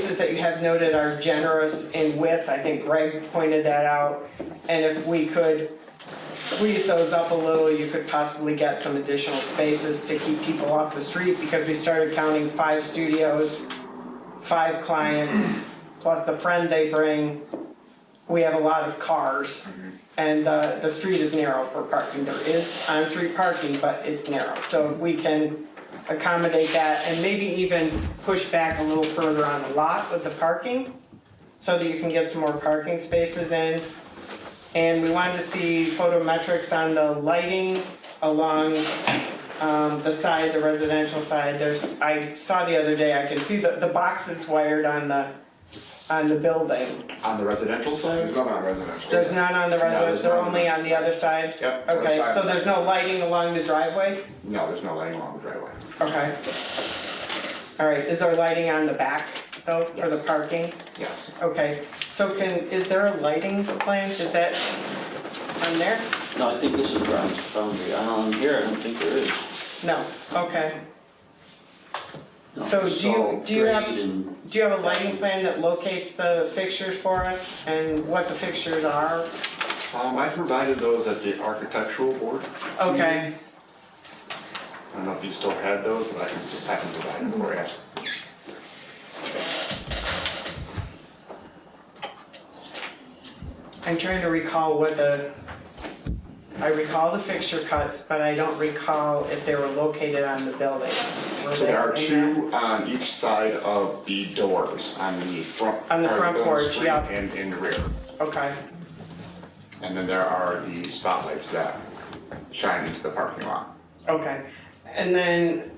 prices that you have noted are generous in width, I think Greg pointed that out. And if we could squeeze those up a little, you could possibly get some additional spaces to keep people off the street, because we started counting five studios, five clients, plus the friend they bring. We have a lot of cars, and uh, the street is narrow for parking. There is on-street parking, but it's narrow. So if we can accommodate that, and maybe even push back a little further on the lot with the parking, so that you can get some more parking spaces in. And we wanted to see photometrics on the lighting along um, the side, the residential side. There's, I saw the other day, I can see the, the boxes wired on the, on the building. On the residential There's side? nothing on residential. There's none on the there's residential, they're none. only on the other side? Yep, other Okay, side. so there's no lighting along the driveway? No, there's no lighting along the driveway. Okay. All right, is there lighting on the back though, for the Yes. parking? Yes. Okay, so can, is there a lighting plan, is that on there? No, I think this is Brown's boundary, on here, I don't think there is. No, okay. No, So it's do you- all do you have- grade and- Do you have a lighting plan that locates the fixtures for us and what the fixtures are? Um, I provided those at the architectural board. Okay, I don't know if you still had those, but I can just have them provided for you. I'm trying to recall what the, I recall the fixture cuts, but I don't recall if they were located on the building. Were So there are they in two on each side of the doors, on the front. On the part of front building porch, screen yeah. And in rear. there? Okay, And then there are the spotlights that shine into the parking lot. okay. And then,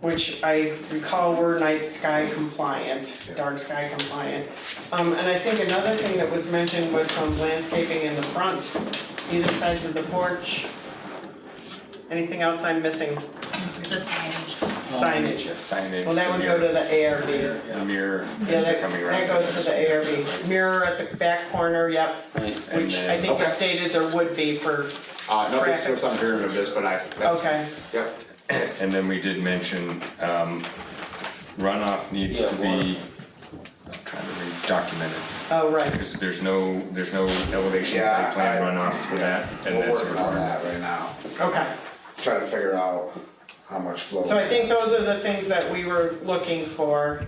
which I recall were night sky compliant, dark sky compliant. Um, and I think another thing that was mentioned was some landscaping in the front, either sides of the porch. Anything else I'm missing? the signage. Signage. Um, Signage. Well, that would go to the ARV. Yeah, The mirror. as they're that, coming around. that goes to the ARV. Mirror at the back corner, yep, Right, And which then- I think you Okay. stated there would be for, Uh, no, this Traffic. is, I'm hearing of this, but I, that's, okay, yep. And then we did mention, um, runoff needs Yeah, to be, I'm trying to read, documented. oh, right, Because there's no, there's no elevation Yeah, site plan I- runoff for that. and We're that's working a- on that right now, okay. trying to figure out how much flow. So I think those are the things that we were looking for.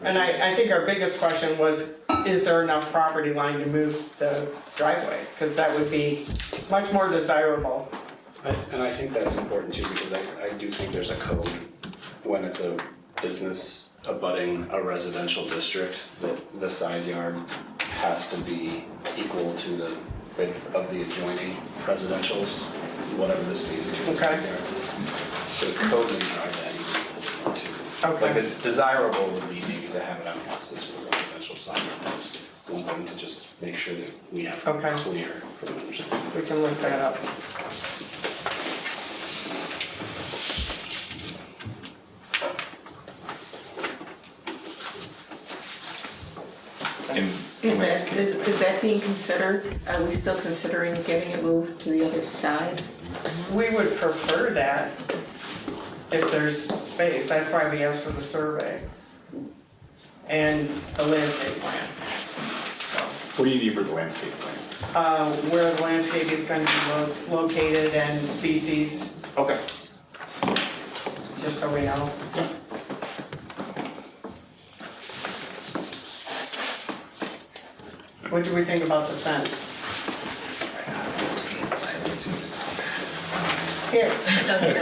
And I, I think our biggest question was, is there enough property line to move the driveway? Because that would be much more desirable. I- And I think that's important too, because I, I do think there's a code when it's a business abutting a residential district, that the side yard has to be equal to the width of the adjoining residential's, whatever the space between the side Okay. yards is. So the code may drive that even too. Okay. Like the desirable would be maybe to have it on the opposite to the residential side, that's one thing to just make sure that we have Okay. clear for the understanding. We can look that up. And Is that, landscape. is that being considered? Are we still considering getting it moved to the other side? We would prefer that if there's space, that's why we asked for the survey and the landscape plan. What do you need for the landscape plan? Uh, where the landscape is gonna be lo- located and species, Okay. just so we know. What do we think about the fence? Here, It doesn't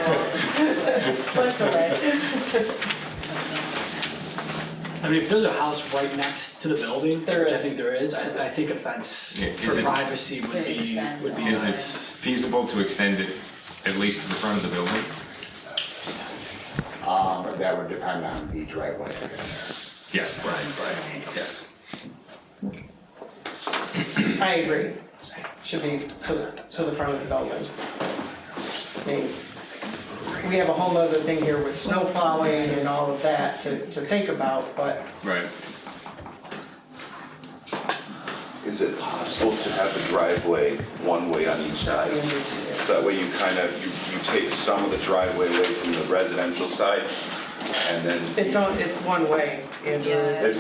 go. slip away. I mean, if there's a house right next to the building, which There I is. think there is, I, I think a fence Yeah, is for it- privacy would Could be, extend would be on. Is it nice. feasible to extend it at least to the front of the building? Um, that would depend on the driveway. I guess. Yes. Right, right. Yes. I agree. Should be to the, to the front of the building. I mean, We have a whole other thing here with snow plowing and all of that to, to think about, but Right. Is it possible to have the driveway one way on each side? So that way you kind of, you, you take some of the driveway away from the residential side and then. it's on, it's one way, Andrew. Yeah. It's-